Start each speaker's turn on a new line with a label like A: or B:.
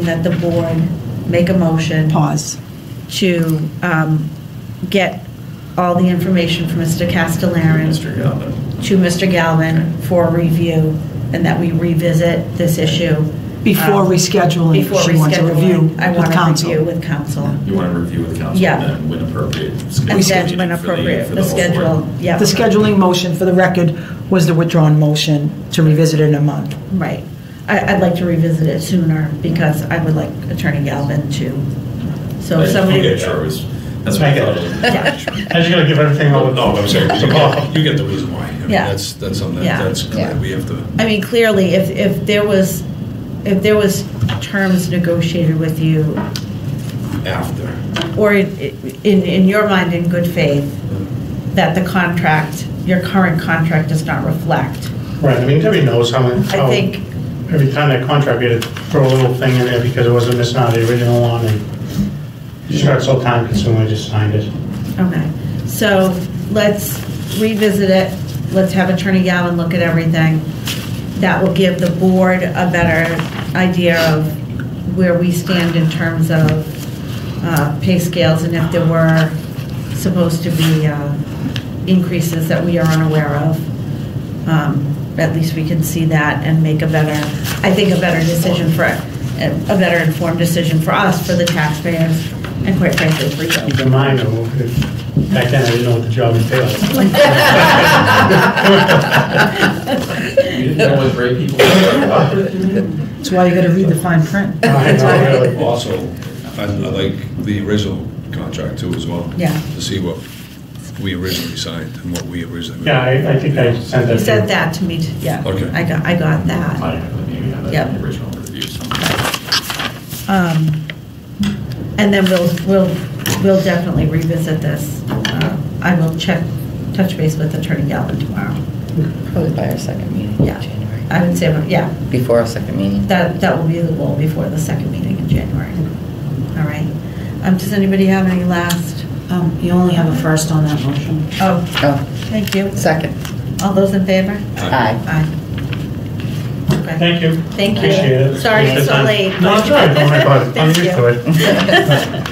A: that the board make a motion
B: Pause.
A: to um, get all the information from Mr. Castellarin
C: Mr. Galvin.
A: to Mr. Galvin for review, and that we revisit this issue.
B: Before
A: um,
B: rescheduling,
A: before
B: she wants a
A: rescheduling.
B: review
A: I
B: with
A: want a
B: council.
A: review with council.
C: You want to review with council,
A: Yeah.
C: then when appropriate. schedule
A: And
C: a
A: then
C: meeting
A: when
C: for the-
A: appropriate,
C: for
A: the
C: whole board.
A: schedule, yeah.
B: The scheduling motion, for the record, was the withdrawn motion to revisit in a month.
A: Right. I, I'd like to revisit it sooner because I would like Attorney Galvin to, so if
C: But
A: somebody.
C: You get yours, that's what I
D: I get
C: thought.
D: it.
C: it was.
D: I just gotta give everything over.
E: No, I'm sorry, you get, you get the reason why. I mean,
A: Yeah.
E: That's, that's something,
A: Yeah.
E: that- that's, clear. we have to,
A: I mean, clearly, if, if there was, if there was terms negotiated with you,
E: after.
A: or in, in in your mind, in good faith, that the contract, your current contract does not reflect,
D: Right, I mean, Debbie knows how,
A: I
D: how,
A: think,
D: every time that contract, we had to throw a little thing in there because it wasn't missing out the original one, and it just got so time consuming, I just signed it.
A: okay. So let's revisit it, let's have Attorney Galvin look at everything. That will give the board a better idea of where we stand in terms of uh, pay scales and if there were supposed to be uh, increases that we are unaware of. Um, At least we can see that and make a better, I think, a better decision for, a better informed decision for us, for the taxpayers, and quite frankly, for
D: Keep
A: you.
D: in mind, though, if- back then, I didn't know what the job entailed.
C: You didn't know what brave people were.
B: That's why you got to read the fine print.
D: I know, really.
E: Also, I I like the original contract too as well.
A: Yeah.
E: To see what we originally signed and what we originally.
D: Yeah, I, I think I sent that.
A: You said
D: to-
A: that to me, t- yeah.
E: Okay.
A: I got, I got that.
C: I maybe have that in
A: Yep.
C: the original review somewhere.
A: Um, And then we'll, we'll, we'll definitely revisit this. Uh, I will check, touch base with Attorney Galvin tomorrow.
F: Probably by our second meeting
A: Yeah.
F: in January.
A: I would say, yeah,
F: Before our second meeting.
A: That, that will be the goal before the second meeting in January. All right. Um, Does anybody have any last?
G: Um, You only have a first on that motion.
A: Oh,
F: Oh,
A: thank you.
F: second.
A: All those in favor?
F: Aye.
A: Aye. Okay.
D: Thank you.
A: Thank you.
D: Appreciate it.
A: Sorry
D: Appreciate
A: it's so
D: the time.
A: late.
D: No, it's all right, don't worry about it, I'm
A: Thank
D: used
A: you.
D: to it.